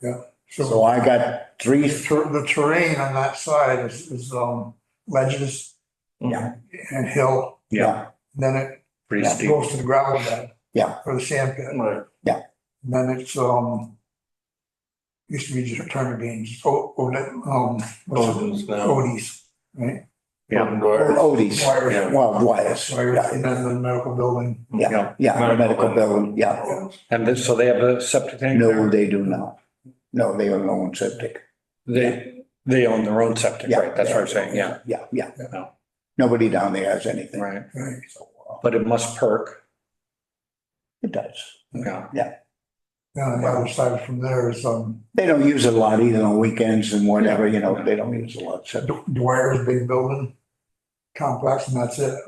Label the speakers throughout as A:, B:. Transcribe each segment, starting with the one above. A: So
B: So
A: I got three,
B: the ter- the terrain on that side is, is um, ledges
A: Yeah.
B: and hill.
A: yeah,
B: Then it
C: Pretty
A: Yeah.
C: steep.
B: goes to the gravel bed.
A: Yeah.
B: For the sand pit.
C: Right.
B: And then it's, um, used to be just turnip beans, o- o- um, what's it,
C: Odin's now.
B: Odie's, right?
C: Yeah.
A: Or Odie's,
B: Dwyer's.
A: well, Dwyer's,
B: Dwyer's, and
A: yeah,
B: then the medical building.
A: yeah, yeah, the medical building, yeah.
C: And then- so they have a septic tank?
A: No,
C: there?
A: they do now. No, they own their own septic.
C: They, they own their own septic,
A: Yeah.
C: right? That's what I'm saying, yeah,
A: Yeah, yeah.
C: Yeah.
A: Nobody down there has anything.
C: right.
B: Right.
A: So, uh,
C: But it must perk,
A: It does.
C: yeah.
B: Now, the other side from there is, um,
A: They don't use it a lot either on weekends and whatever, you know, they don't use a lot. So
B: D- Dwyer's big building complex, and that's it,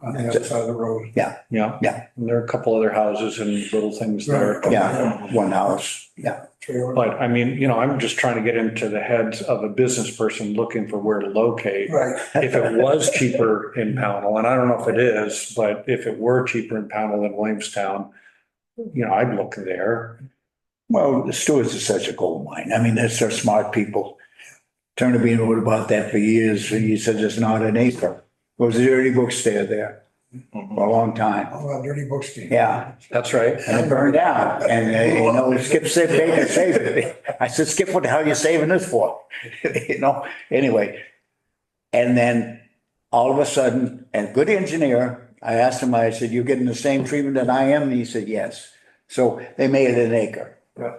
B: on the other side of the road.
C: Yeah.
A: Yeah.
C: And there are a couple other houses and little things there.
B: Right.
A: Yeah, one house, yeah,
B: Trailer.
C: But I mean, you know, I'm just trying to get into the heads of a business person looking for where to locate.
B: Right,
C: If it was cheaper in Pownell, and I don't know if it is, but if it were cheaper in Pownell than Williamstown, you know, I'd look there.
A: Well, the Stewart's is such a gold mine. I mean, they're so smart people. Turner Bean wrote about that for years. He said it's not an acre. It was a dirty bookstore there for a long time.
B: all that dirty books game.
A: Yeah,
C: That's right.
A: and it burned out. And, uh, you know, Skip said, Baker saved it. I said, Skip, what the hell are you saving this for? You know, anyway. And then all of a sudden, and good engineer, I asked him, I said, you getting the same treatment that I am? And he said, yes. So they made it an acre.
B: Yeah.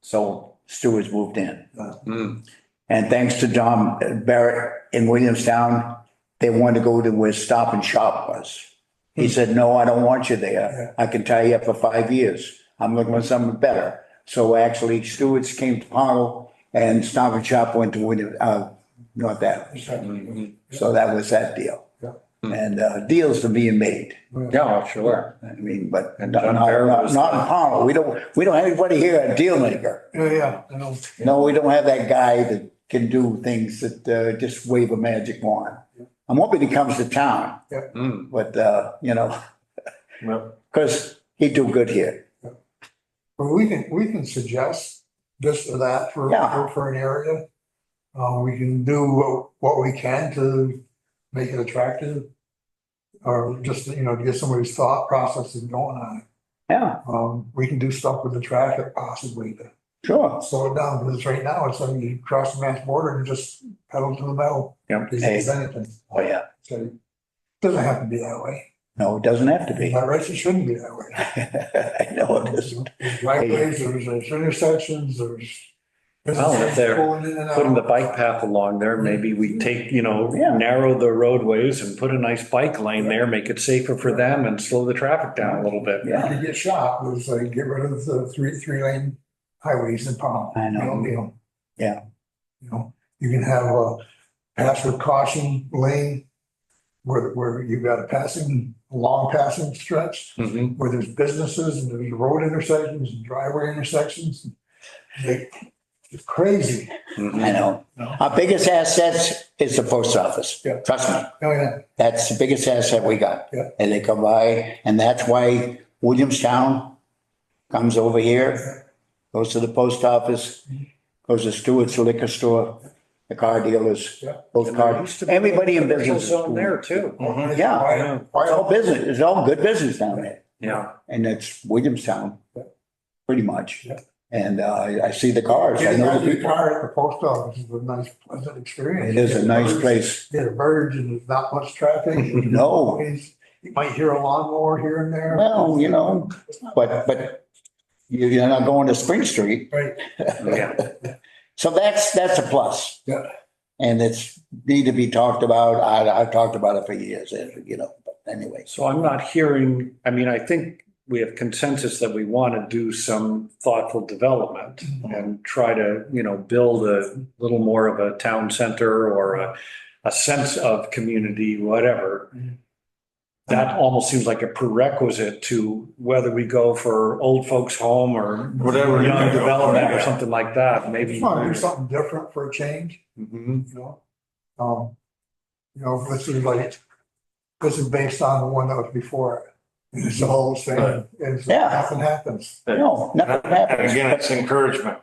A: So Stewart's moved in.
C: Mm.
A: And thanks to John Barrett in Williamstown, they wanted to go to where Stop and Shop was. He said, no, I don't want you there. I can tie you up for five years. I'm looking for something better. So actually Stewart's came to Powell and Stop and Shop went to William, uh, North Adams.
B: Exactly.
A: So that was that deal.
B: Yeah.
C: Hmm.
A: And, uh, deals are being made.
C: Yeah, sure.
A: I mean, but
C: And
A: not,
C: John
A: not,
C: Barrett
A: not
C: was
A: not
C: the-
A: in Powell. We don't, we don't have anybody here a deal maker.
B: Yeah, yeah, I know.
A: No, we don't have that guy that can do things that uh, just wave a magic wand. I'm hoping he comes to town,
C: Mm.
A: but, uh, you know,
C: Well,
A: because he'd do good here.
B: But we can, we can suggest this or that for,
A: Yeah.
B: for- for an area. Uh, we can do what, what we can to make it attractive. Or just, you know, to get somebody's thought processes going on.
A: Yeah,
B: Um, we can do stuff with the traffic possibly to
A: sure.
B: slow it down, because right now, it's like you cross the mass border and just pedal to the metal.
C: Yep.
B: Doesn't do anything.
A: Oh, yeah.
B: So, Doesn't have to be that way.
A: No, it doesn't have to be.
B: By rights, it shouldn't be that way.
A: I know it isn't.
B: There's Driveways, there's there's intersections, there's.
A: Oh,
C: Well, if they're
B: Pulling in and out.
C: Putting the bike path along there, maybe we take, you know,
A: Yeah.
C: narrow the roadways and put a nice bike lane there, make it safer for them and slow the traffic down a little bit.
A: Yeah.
B: You could get shot, was like, get rid of the three, three lane highways in Pownell.
A: I know.
B: You know,
A: Yeah.
B: You know, you can have a pass with caution lane where, where you've got a passing, long passing stretch
A: Mm-hmm.
C: Mhm.
B: where there's businesses and there's road intersections and driveway intersections. They- It's crazy.
A: I
C: Mhm.
A: know.
B: No.
A: Our biggest asset is the post office.
B: Yeah.
A: Trust me.
B: Oh, yeah,
A: That's the biggest asset we got.
B: Yeah.
A: And they come by, and that's why Williamstown comes over here, goes to the post office, goes to Stewart's liquor store, the car dealers,
B: Yeah.
A: both car, everybody in
C: Commercial
A: business. Mm-hmm.
C: Zone there too.
A: Yeah,
C: Mhm. Yeah.
A: it's all business, it's all good business down there,
C: Yeah,
A: and it's Williamstown,
B: Yeah.
A: pretty much.
B: Yeah.
A: And uh, I, I see the cars, I
B: Getting
A: know
B: out
A: the
B: your
A: people.
B: car at the post office is a nice, pleasant experience.
A: It is a nice place.
B: Get a verge and there's not much traffic.
A: No,
B: always, you might hear a lawnmower here and there.
A: well, you know, but, but you- you're not going to Spring Street.
B: Right,
C: yeah.
A: So that's, that's a plus.
B: Yeah.
A: And it's need to be talked about. I, I've talked about it for years, and, you know, but anyways.
C: So I'm not hearing, I mean, I think we have consensus that we want to do some thoughtful development and try to, you know, build a little more of a town center or a, a sense of community, whatever. That almost seems like a prerequisite to whether we go for old folks home or
D: Whatever. you
C: young
D: go
C: development or
D: for.
C: something like that, maybe.
B: just want to do something different for a change,
C: Mhm.
B: you know? Um, you know, this is like, this is based on the one that was before. it. It's the whole thing,
D: Right.
B: it's,
A: Yeah.
B: nothing happens.
A: No, nothing
D: And
A: happens.
D: again, it's encouragement.